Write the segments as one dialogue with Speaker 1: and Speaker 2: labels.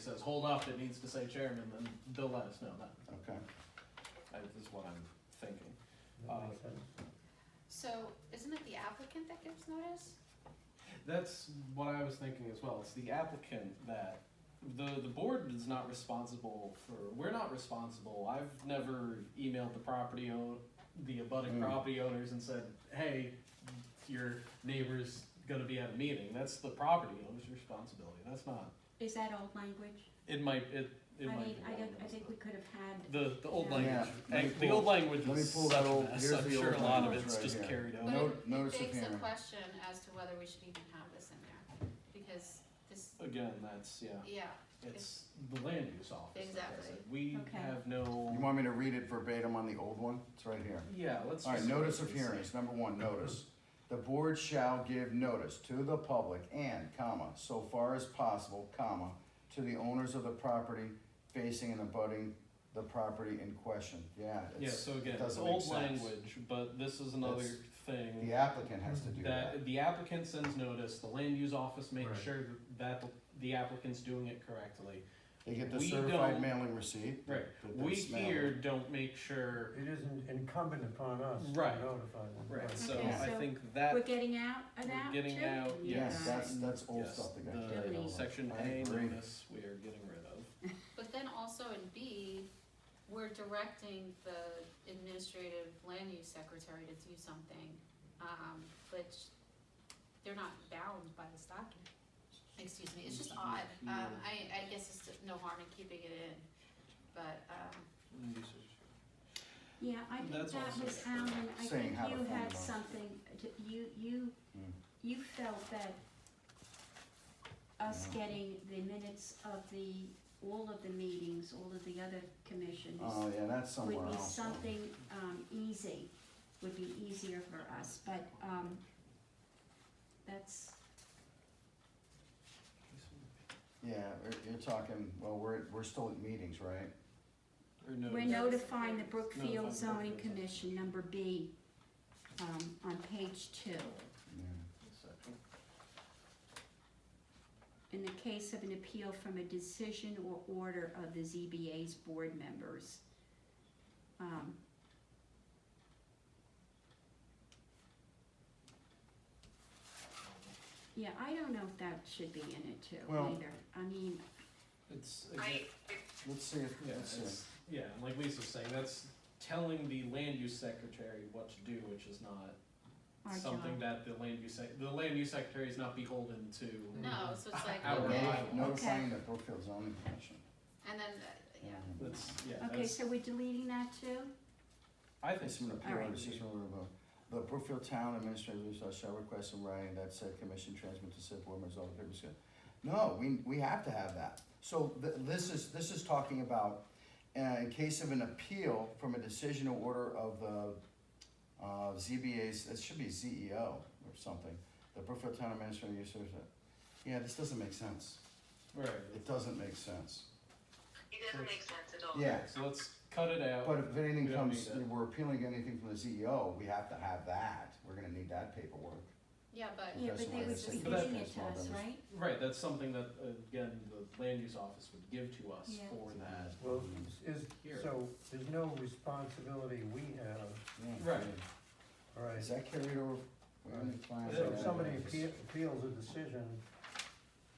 Speaker 1: says hold off that needs to say chairman, then they'll let us know that.
Speaker 2: Okay,
Speaker 1: That is what I'm thinking.
Speaker 3: That makes sense.
Speaker 4: So isn't it the applicant that gives notice?
Speaker 1: That's what I was thinking as well. It's the applicant that, the, the board is not responsible for, we're not responsible. I've never emailed the property own, the abutting
Speaker 2: Mm.
Speaker 1: property owners and said, hey, your neighbor's gonna be at a meeting. That's the property owner's responsibility. That's not,
Speaker 5: Is that old language?
Speaker 1: it might, it, it
Speaker 5: I
Speaker 1: might.
Speaker 5: mean,
Speaker 1: be
Speaker 5: I don't,
Speaker 1: wrong,
Speaker 5: I
Speaker 1: it's
Speaker 5: think
Speaker 1: not.
Speaker 5: we could have had,
Speaker 1: The, the old
Speaker 5: Yeah.
Speaker 1: language,
Speaker 2: Yeah, let me
Speaker 1: the old
Speaker 2: pull-
Speaker 1: language
Speaker 2: let me
Speaker 1: is
Speaker 2: pull
Speaker 1: such
Speaker 2: that
Speaker 1: a
Speaker 2: old-
Speaker 1: mess,
Speaker 2: here's
Speaker 1: I'm
Speaker 2: the old
Speaker 1: sure a lot of
Speaker 2: language
Speaker 1: it's
Speaker 2: right
Speaker 1: just
Speaker 2: here.
Speaker 1: carried
Speaker 4: But
Speaker 1: over.
Speaker 2: Uh, No-
Speaker 4: it-
Speaker 2: notice of
Speaker 4: It begs the
Speaker 2: hearing.
Speaker 4: question as to whether we should even have this in there, because this,
Speaker 1: Again, that's, yeah,
Speaker 4: yeah,
Speaker 1: it's the land use office. that does it.
Speaker 4: Exactly.
Speaker 1: We
Speaker 5: Okay.
Speaker 1: have
Speaker 2: you
Speaker 1: no,
Speaker 2: want me to read it verbatim on the old one? It's right here.
Speaker 1: yeah, let's.
Speaker 2: All right,
Speaker 1: just-
Speaker 2: notice of hearings, number one, notice. The board shall give notice to the public and, comma, so far as possible, comma, to the owners of the property facing and abutting the property in question. Yeah,
Speaker 1: Yeah,
Speaker 2: it's,
Speaker 1: so again, it's
Speaker 2: it doesn't make
Speaker 1: old
Speaker 2: sense.
Speaker 1: language, but this is another
Speaker 2: That's-
Speaker 1: thing
Speaker 2: The applicant has to do that.
Speaker 1: that the applicant sends notice, the land use office
Speaker 3: Right.
Speaker 1: makes sure that the- the applicant's doing it correctly.
Speaker 2: They get the
Speaker 1: We
Speaker 2: certified
Speaker 1: don't-
Speaker 2: mailing receipt.
Speaker 1: Right,
Speaker 2: that they
Speaker 1: we
Speaker 2: smell.
Speaker 1: here don't make sure,
Speaker 3: It isn't incumbent upon us to
Speaker 1: Right.
Speaker 3: notify them.
Speaker 1: right, so
Speaker 5: Okay,
Speaker 1: I
Speaker 5: so
Speaker 1: think that.
Speaker 5: we're getting out of
Speaker 1: We're
Speaker 5: that too?
Speaker 1: getting out,
Speaker 2: Yes,
Speaker 1: Yes.
Speaker 2: that's, that's old
Speaker 1: Yes,
Speaker 2: stuff that got
Speaker 1: the
Speaker 2: carried over.
Speaker 1: Section
Speaker 2: I
Speaker 1: A
Speaker 2: agree.
Speaker 1: notice we are getting rid of.
Speaker 4: But then also in B, we're directing the administrative land use secretary to do something, um, which they're not bound by this document. Excuse me, it's just odd, um, I, I guess it's no harm in keeping it in, but, um,
Speaker 5: Yeah, I think
Speaker 1: That's
Speaker 5: that
Speaker 1: also
Speaker 5: was Alan, I
Speaker 2: saying
Speaker 5: think
Speaker 2: how to
Speaker 5: you
Speaker 2: fund
Speaker 5: had
Speaker 2: those.
Speaker 5: something, to- you, you,
Speaker 2: Mm.
Speaker 5: you felt that us
Speaker 2: Yeah.
Speaker 5: getting the minutes of the, all of the meetings, all of the other commissions
Speaker 2: Oh, yeah, that's somewhere
Speaker 5: would be
Speaker 2: else.
Speaker 5: something, um, easy, would be easier for us, but, um, that's,
Speaker 2: Yeah, you're- you're talking, well, we're, we're still at meetings, right?
Speaker 1: Or no,
Speaker 5: We're notifying the Brookfield
Speaker 1: Notifying
Speaker 5: zoning
Speaker 1: Brookfield.
Speaker 5: commission, number B, um, on page two.
Speaker 2: Yeah.
Speaker 1: section.
Speaker 5: In the case of an appeal from a decision or order of the ZBA's board members. Um, Yeah, I don't know if that should be in it too
Speaker 2: Well-
Speaker 5: either. I mean,
Speaker 1: It's,
Speaker 2: Let's see, if-
Speaker 1: yeah,
Speaker 2: let's see.
Speaker 1: it's, yeah, and like Lisa's saying, that's telling the land use secretary what to do, which is not
Speaker 5: our
Speaker 1: something
Speaker 5: job.
Speaker 1: that the land use, sec- the land use secretary is not beholden to.
Speaker 4: no, so it's like,
Speaker 1: Our
Speaker 4: okay,
Speaker 1: bylaw.
Speaker 2: Notifying the Brookfield zoning commission.
Speaker 4: and then, uh, yeah.
Speaker 1: That's, yeah,
Speaker 5: Okay,
Speaker 1: that's,
Speaker 5: so we're deleting that too?
Speaker 1: I think
Speaker 2: It's
Speaker 1: so.
Speaker 2: an appeal,
Speaker 5: Alright.
Speaker 2: it's just a little bit- The Brookfield Town Administrator shall request in writing that said commission transmit to said board members all the papers. No, we, we have to have that. So th- this is, this is talking about, uh, in case of an appeal from a decision or order of the, uh, ZBA's, it should be CEO or something. The Brookfield Town Administrator, you said, yeah, this doesn't make sense.
Speaker 1: Right,
Speaker 2: It doesn't make sense.
Speaker 6: It doesn't make sense at all.
Speaker 2: Yeah,
Speaker 1: so let's cut it out.
Speaker 2: But if anything
Speaker 1: We don't
Speaker 2: comes,
Speaker 1: need that.
Speaker 2: we're appealing anything from the CEO, we have to have that, we're gonna need that paperwork.
Speaker 4: Yeah, but
Speaker 5: Yeah,
Speaker 2: That's
Speaker 5: but they
Speaker 2: why
Speaker 5: would
Speaker 2: it's
Speaker 5: be
Speaker 2: in
Speaker 1: the
Speaker 5: giving it to
Speaker 2: small
Speaker 5: us,
Speaker 2: numbers.
Speaker 5: right?
Speaker 1: Right, that's something that, uh, again, the land use office would give to us
Speaker 5: Yeah.
Speaker 1: for that.
Speaker 3: Well, is,
Speaker 1: Here.
Speaker 3: so there's no responsibility we have,
Speaker 2: Yeah.
Speaker 1: Right.
Speaker 3: all right?
Speaker 2: Is that carried over? We haven't planned
Speaker 3: So
Speaker 2: that
Speaker 3: if
Speaker 2: yet.
Speaker 3: somebody appeal- appeals a decision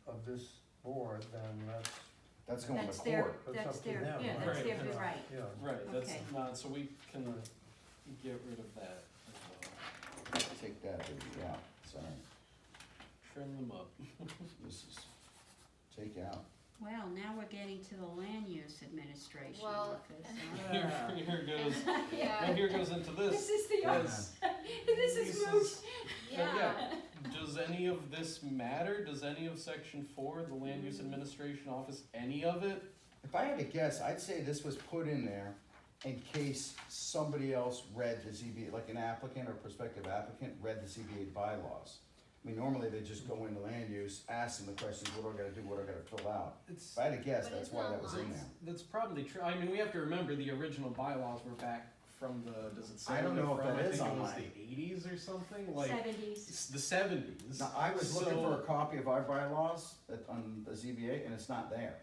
Speaker 3: of this board, then that's,
Speaker 2: That's going to
Speaker 5: That's their-
Speaker 2: court.
Speaker 3: That's
Speaker 5: That's
Speaker 3: up to
Speaker 5: their,
Speaker 3: them,
Speaker 5: yeah, that's
Speaker 1: right?
Speaker 5: their right.
Speaker 3: yeah.
Speaker 1: Right, that's
Speaker 5: Okay.
Speaker 1: not, so we can uh, get rid of that as well.
Speaker 2: Take that, yeah, sorry,
Speaker 1: Trim them up.
Speaker 2: this is, take out.
Speaker 5: Well, now we're getting to the land use administration
Speaker 4: Well-
Speaker 5: office. huh?
Speaker 1: Here, here goes,
Speaker 4: Yeah,
Speaker 1: and here goes into
Speaker 5: This
Speaker 1: this.
Speaker 5: is the,
Speaker 1: Yes.
Speaker 5: this is moot.
Speaker 4: yeah.
Speaker 1: Does any of this matter? Does any of section four, the land
Speaker 2: Hmm.
Speaker 1: use administration office, any of it?
Speaker 2: If I had to guess, I'd say this was put in there in case somebody else read the ZBA, like an applicant or prospective applicant read the ZBA bylaws. I mean, normally they just go into land use, ask them the questions, what do I gotta do, what do I gotta fill out?
Speaker 1: It's,
Speaker 2: If I had to guess,
Speaker 4: But
Speaker 2: that's
Speaker 4: isn't
Speaker 2: why
Speaker 4: that
Speaker 2: that was in
Speaker 4: lines?
Speaker 2: there.
Speaker 1: that's probably true. I mean, we have to remember the original bylaws were back from the, does it say?
Speaker 2: I don't
Speaker 1: where
Speaker 2: know if
Speaker 1: they're from?
Speaker 2: that is
Speaker 1: I think it was
Speaker 2: online.
Speaker 1: the eighties or something, like,
Speaker 5: Seventies.
Speaker 1: it's the seventies.
Speaker 2: Now, I was looking
Speaker 1: So-
Speaker 2: for a copy of our bylaws at, on the ZBA, and it's not there.